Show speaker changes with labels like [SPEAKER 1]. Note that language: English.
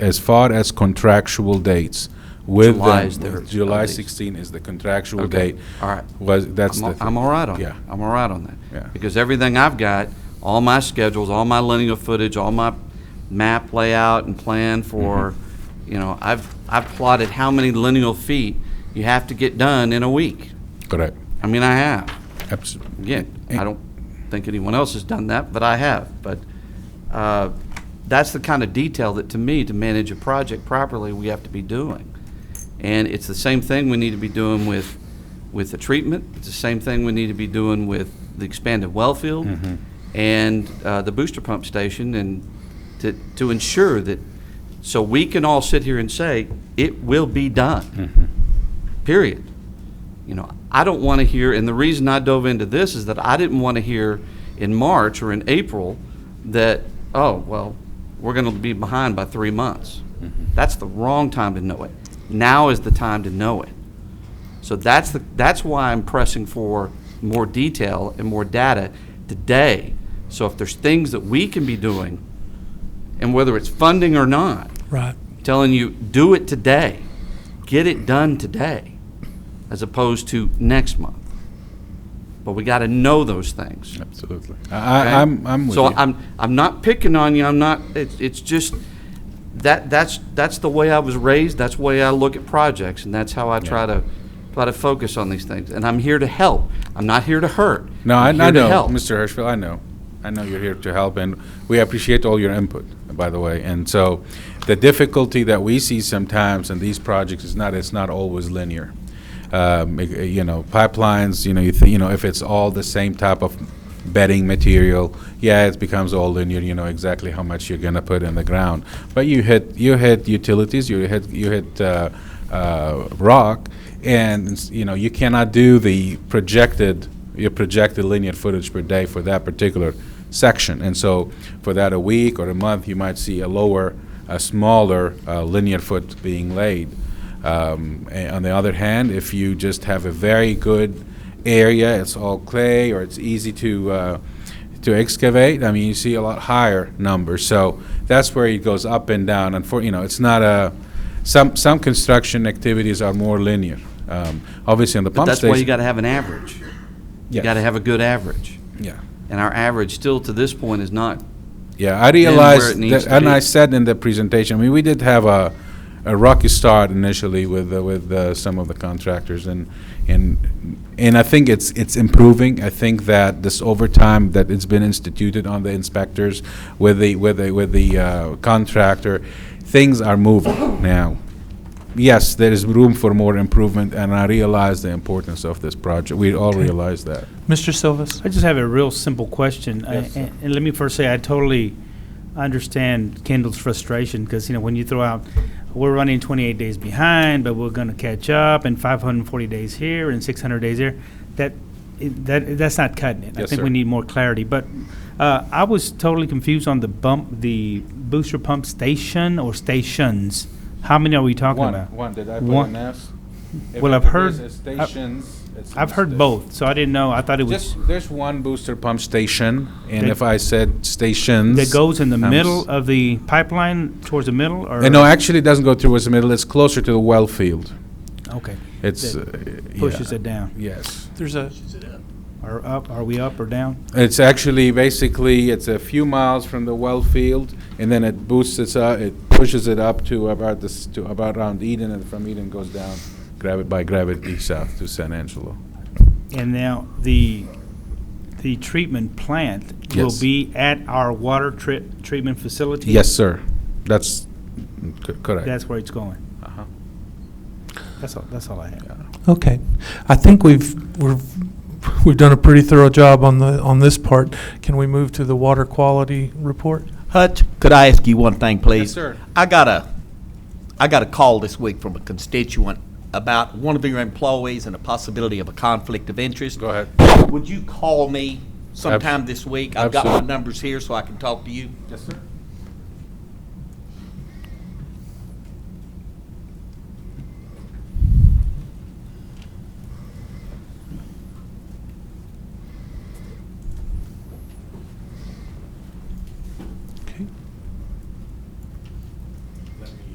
[SPEAKER 1] as far as contractual dates with
[SPEAKER 2] July
[SPEAKER 1] them-
[SPEAKER 2] is their-
[SPEAKER 1] July
[SPEAKER 2] at least.
[SPEAKER 1] 16 is the contractual
[SPEAKER 2] Okay.
[SPEAKER 1] date.
[SPEAKER 2] All right.
[SPEAKER 1] Was, that's
[SPEAKER 2] I'm
[SPEAKER 1] the.
[SPEAKER 2] al-
[SPEAKER 1] thing.
[SPEAKER 2] I'm all right on
[SPEAKER 1] Yeah.
[SPEAKER 2] that. I'm all right on that.
[SPEAKER 1] Yeah.
[SPEAKER 2] Because everything I've got, all my schedules, all my linear footage, all my map layout and plan for,
[SPEAKER 1] Mm-hmm.
[SPEAKER 2] you know, I've, I've plotted how many lineal feet you have to get done in a week.
[SPEAKER 1] Correct.
[SPEAKER 2] I mean, I have.
[SPEAKER 1] Absolutely.
[SPEAKER 2] Again, I don't think anyone else has done that, but I have. But uh, that's the kind of detail that, to me, to manage a project properly, we have to be doing. And it's the same thing we need to be doing with, with the treatment. It's the same thing we need to be doing with the expanded well field and uh, the booster pump station and to, to ensure that, so we can all sit here and say, it will be done. Period you know, I don't want to hear, and the reason I dove into this is that I didn't want to hear in March or in April that, oh, well, we're going to be behind by three months. That's the wrong time to know it. Now is the time to know it. So that's the, that's why I'm pressing for more detail and more data today. So if there's things that we can be doing, and whether it's funding or not,
[SPEAKER 3] Right.
[SPEAKER 2] telling you, do it today, get it done today, as opposed to next month. But we got to know those things.
[SPEAKER 1] Absolutely. I,
[SPEAKER 2] okay?
[SPEAKER 1] I- I'm, I'm with you.
[SPEAKER 2] So I'm, I'm not picking on you, I'm not, it's, it's just, that, that's, that's the way I was raised, that's the way I look at projects, and that's how I try to, try to focus on these things. And I'm here to help, I'm not here to hurt.
[SPEAKER 1] No, I, I
[SPEAKER 2] I'm
[SPEAKER 1] know,
[SPEAKER 2] here to help.
[SPEAKER 1] Mr. Hirschfeld, I know. I know you're here to help, and we appreciate all your input, by the way. And so, the difficulty that we see sometimes in these projects is not, it's not always linear. Um, i- i- you know, pipelines, you know, you, th- you know, if it's all the same type of bedding material, yeah, it becomes all linear, you know exactly how much you're gonna put in the ground. But you hit, you hit utilities, you hit, you hit, uh, uh, rock, and, you know, you cannot do the projected your projected linear footage per day for that particular section. And so for that a week or a month, you might see a lower, a smaller uh, linear foot being laid. Um, a- on the other hand, if you just have a very good area, it's all clay or it's easy to uh, to excavate. I mean, you see a lot higher numbers. So that's where it goes up and down. And for you know, it's not a some some construction activities are more linear. Um, obviously, on the
[SPEAKER 2] But
[SPEAKER 1] pump
[SPEAKER 2] that's
[SPEAKER 1] station,
[SPEAKER 2] why you got to have an average. You
[SPEAKER 1] Yes.
[SPEAKER 2] got to have a good average.
[SPEAKER 1] yeah.
[SPEAKER 2] And our average still to this point is not
[SPEAKER 1] Yeah, I
[SPEAKER 2] where
[SPEAKER 1] realized,
[SPEAKER 2] it needs
[SPEAKER 1] that-
[SPEAKER 2] to
[SPEAKER 1] and I
[SPEAKER 2] be.
[SPEAKER 1] said in the presentation, I mean, we did have a, a rocky start initially with, uh, with uh, some of the contractors, and, and, and I think it's, it's improving. I think that this overtime that it's been instituted on the inspectors with the, with the, with the uh, contractor, things are moving now. Yes, there is room for more improvement, and I realize the importance of this project. We all realize that.
[SPEAKER 3] Mr. Silvas?
[SPEAKER 4] I just have a real simple question. I-
[SPEAKER 1] Yes, sir.
[SPEAKER 4] And and let me first say, I totally understand Kendall's frustration because, you know, when you throw out, we're running 28 days behind, but we're going to catch up and 540 days here and 600 days there, that, it- that, that's not cutting it. I
[SPEAKER 1] Yes,
[SPEAKER 4] think
[SPEAKER 1] sir.
[SPEAKER 4] we need more clarity. But uh, I was totally confused on the bump, the booster pump station or stations. How many are we talking
[SPEAKER 1] One,
[SPEAKER 4] about?
[SPEAKER 1] one, did I put
[SPEAKER 4] One.
[SPEAKER 1] an S? If
[SPEAKER 4] Well,
[SPEAKER 1] it-
[SPEAKER 4] I've
[SPEAKER 1] if
[SPEAKER 4] heard-
[SPEAKER 1] there's a
[SPEAKER 4] I've-
[SPEAKER 1] Stations. it's
[SPEAKER 4] I've heard
[SPEAKER 1] listed.
[SPEAKER 4] both, so I didn't know. I thought it was,
[SPEAKER 1] Just, there's one booster pump station, and
[SPEAKER 4] That-
[SPEAKER 1] if I said stations.
[SPEAKER 4] that goes in the
[SPEAKER 1] I'm s-
[SPEAKER 4] middle of the pipeline, towards the middle, or?
[SPEAKER 1] Uh, No, actually, it doesn't go towards the middle, it's closer to the well field.
[SPEAKER 4] Okay.
[SPEAKER 1] It's.
[SPEAKER 4] That
[SPEAKER 1] uh, yeah,
[SPEAKER 4] Pushes it down.
[SPEAKER 1] Yes.
[SPEAKER 3] There's a,
[SPEAKER 1] uh,
[SPEAKER 4] Are up, are we up or down?
[SPEAKER 1] It's actually, basically, it's a few miles from the well field, and then it boosts it, it pushes it up to about this, to about around Eden, and from Eden goes down, gravity, by gravity south to San Angelo.
[SPEAKER 4] And now, the, the treatment plant will
[SPEAKER 1] Yes.
[SPEAKER 4] be at our water tri- treatment facility?
[SPEAKER 1] Yes, sir. That's c- correct.
[SPEAKER 4] That's where it's going?
[SPEAKER 1] Uh-huh.
[SPEAKER 4] That's all, that's all I have.
[SPEAKER 3] okay. I think we've, we've, we've done a pretty thorough job on the, on this part. Can we move to the water quality report?
[SPEAKER 5] Hutch, could I ask you one thing, please?
[SPEAKER 1] sir.
[SPEAKER 5] I got a, I got a call this week from a constituent about one of your employees and the possibility of a conflict of interest.
[SPEAKER 1] Go ahead.
[SPEAKER 5] Would you call me sometime this week? I've got my
[SPEAKER 1] absolutely.
[SPEAKER 5] numbers here so I can talk to you.
[SPEAKER 1] Yes, sir.